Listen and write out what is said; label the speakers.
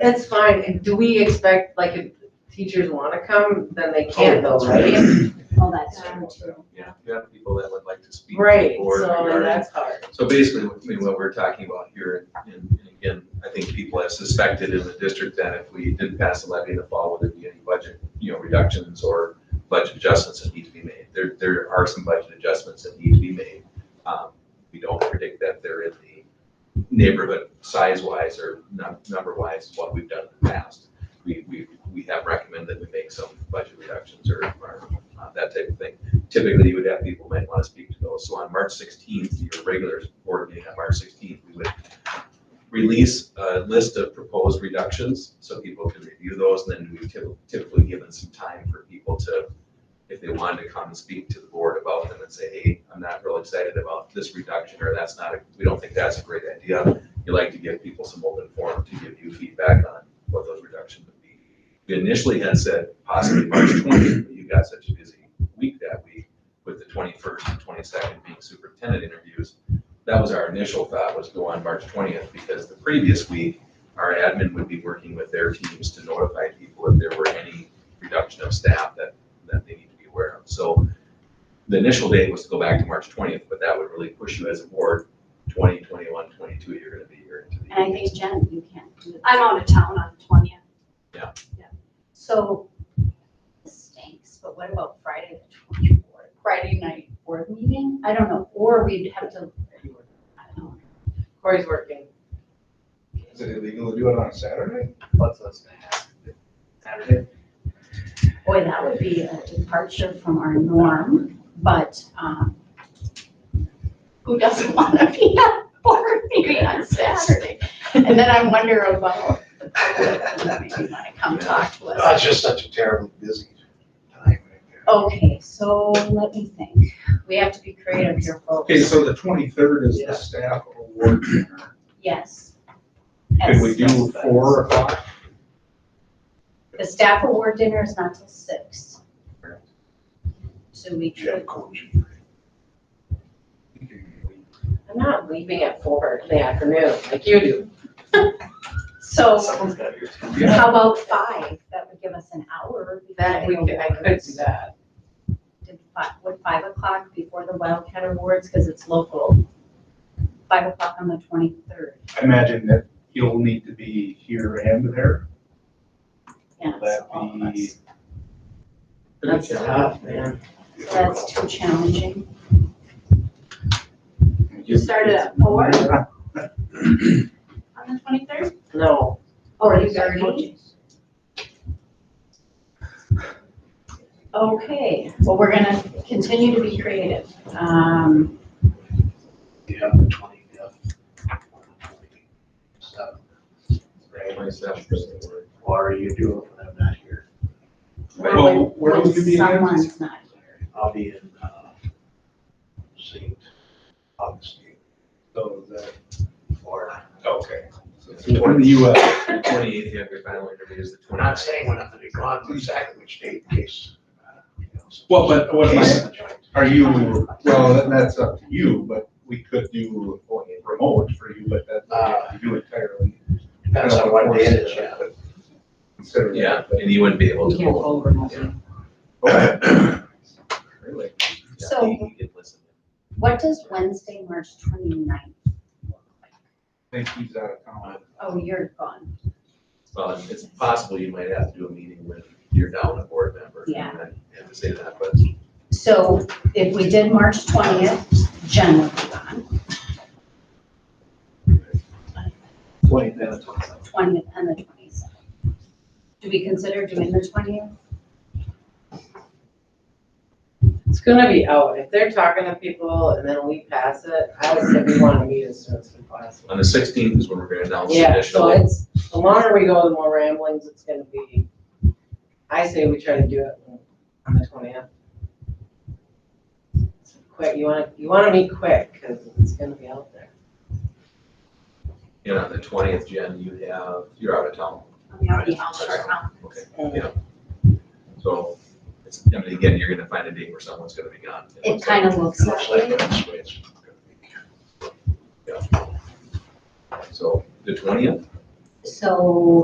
Speaker 1: That's fine, And do we expect, like, if teachers wanna come, then they can though, right?
Speaker 2: Oh, that's true too.
Speaker 3: Yeah, you have people that would like to speak. to the
Speaker 1: Right,
Speaker 3: board
Speaker 1: so and
Speaker 3: regarding-
Speaker 1: that's hard.
Speaker 3: So basically, between what we're talking about here, and, and again, I think people have suspected in the district that if we didn't pass the levy in the fall, would there be any budget, you know, reductions or budget adjustments that need to be made? There, there are some budget adjustments that need to be made. Um, We don't predict that they're in the neighborhood size-wise or num- number-wise, what we've done in the past. We, we, we have recommended we make some budget reductions or, or uh, that type of thing typically you would have people might want to speak to those. So on March sixteenth, your regular board meeting on March sixteenth, we would release a list of proposed reductions so people can review those. And then we typ- typically give them some time for people to, if they wanted to come and speak to the board about them and say, hey, I'm not real excited about this reduction or that's not, a we don't think that's a great idea. You like to give people some open forum to give you feedback on what those reductions would be. We initially had said possibly March twentieth, but you got such a busy week that week with the twenty-first and twenty-second being superintendent interviews. That was our initial thought was go on March twentieth because the previous week, our admin would be working with their teams to notify people if there were any reduction of staff that, that they need to be aware of. So the initial date was to go back to March twentieth, but that would really push you as a board, 20, 21, 22. twenty-two, you're gonna be here into the.
Speaker 2: And I think Jen, you can't do that.
Speaker 4: I'm out of town on the twentieth.
Speaker 2: So, this stinks, but what about Friday the twenty-fourth? Friday night board meeting? I don't know, or we'd have to, I don't know.
Speaker 1: Corey's working.
Speaker 5: Is it illegal to do it on a Saturday?
Speaker 6: What's this gonna happen? Saturday?
Speaker 2: Boy, that would be a departure from our norm, but, um, who doesn't wanna be at a board meeting on Saturday? And then I wonder about the public, who maybe wanna come talk to us.
Speaker 6: Oh, it's just such a terribly busy time right there.
Speaker 2: Okay, so let me think. We have to be creative here, folks.
Speaker 5: Okay, so the twenty-third is the staff award dinner.
Speaker 2: Yes.
Speaker 5: Could we
Speaker 2: Yes.
Speaker 5: do four o'clock?
Speaker 2: The staff award dinner is not till six. So we
Speaker 6: Gym
Speaker 2: could,
Speaker 6: coaching.
Speaker 1: I'm not leaving at four in the afternoon, like you do.
Speaker 2: so
Speaker 6: Someone's gotta be.
Speaker 5: Yeah.
Speaker 2: how about five? That would give us an hour. before
Speaker 1: That, we
Speaker 2: the
Speaker 1: could, I could
Speaker 2: awards.
Speaker 1: do that.
Speaker 2: Did fi- Would five o'clock before the Wildcat Awards, because it's local? Five o'clock on the twenty-third,
Speaker 5: I imagine that you'll need to be here and there.
Speaker 2: yeah, so
Speaker 5: That
Speaker 2: all of
Speaker 5: be-
Speaker 2: us.
Speaker 1: That's tough, man.
Speaker 2: So that's too challenging.
Speaker 4: You started at four
Speaker 5: Yeah.
Speaker 4: on the twenty-third?
Speaker 1: No.
Speaker 2: Or
Speaker 1: you got
Speaker 2: thirty? Okay, well, we're gonna continue to be creative. Um,
Speaker 6: Yeah, the twenty, yeah. So, right, what are you doing when I'm not here?
Speaker 5: Well, where
Speaker 2: when
Speaker 5: would you be again?
Speaker 2: Someone's not here.
Speaker 6: I'll be in, uh, St. Augustine
Speaker 5: So, the-
Speaker 6: for,
Speaker 5: okay.
Speaker 3: So it's
Speaker 5: One in the US.
Speaker 3: 28th, you have your final interview is the
Speaker 6: we're
Speaker 3: 29th.
Speaker 6: not saying we're not gonna be gone, but exactly which date, in case. uh, you know, some-
Speaker 5: Well, but what am I-
Speaker 6: Case of the joint.
Speaker 5: Are you, well, that- that's up to you, but we could do remote for you, but that's not you entirely.
Speaker 6: Depends on what day it is, yeah.
Speaker 5: Consider
Speaker 3: Yeah,
Speaker 5: that.
Speaker 3: and you wouldn't be able
Speaker 1: We
Speaker 3: to.
Speaker 1: can't
Speaker 3: vote.
Speaker 1: go remotely.
Speaker 3: Yeah.
Speaker 5: Okay. Really?
Speaker 3: Yeah,
Speaker 2: So-
Speaker 3: you- you could listen.
Speaker 2: What does Wednesday, March 29th look like?
Speaker 5: think he's out of
Speaker 3: Uh,
Speaker 5: town.
Speaker 2: Oh, you're gone.
Speaker 3: Well, it's- it's possible you might have to do a meeting when you're down a board member.
Speaker 2: Yeah.
Speaker 3: And I have to say that, but
Speaker 2: So if we did March twentieth, Jen would be gone,
Speaker 6: Twenty, then it's twenty-seven.
Speaker 2: twentieth and the twenty-seventh. Do we consider doing the twentieth?
Speaker 1: It's gonna be out, if they're talking to people and then we pass it, I would say we wanna meet as soon as we possible.
Speaker 3: on the sixteenth is when we're gonna announce the
Speaker 1: Yeah, so
Speaker 3: additional.
Speaker 1: it's, the longer we go, the more ramblings it's gonna be. I say we try to do it on the twentieth. Quick, you wanna, you wanna meet quick, cause it's gonna be out there.
Speaker 3: And on the twentieth, Jen, you have, you're out of town. Okay, yeah. So, it's, I mean, again, you're gonna find a date where someone's gonna be gone.
Speaker 2: It kind of looks
Speaker 6: Looks like
Speaker 2: like it.
Speaker 6: that's the way it's gonna be.
Speaker 3: So, the twentieth?
Speaker 2: So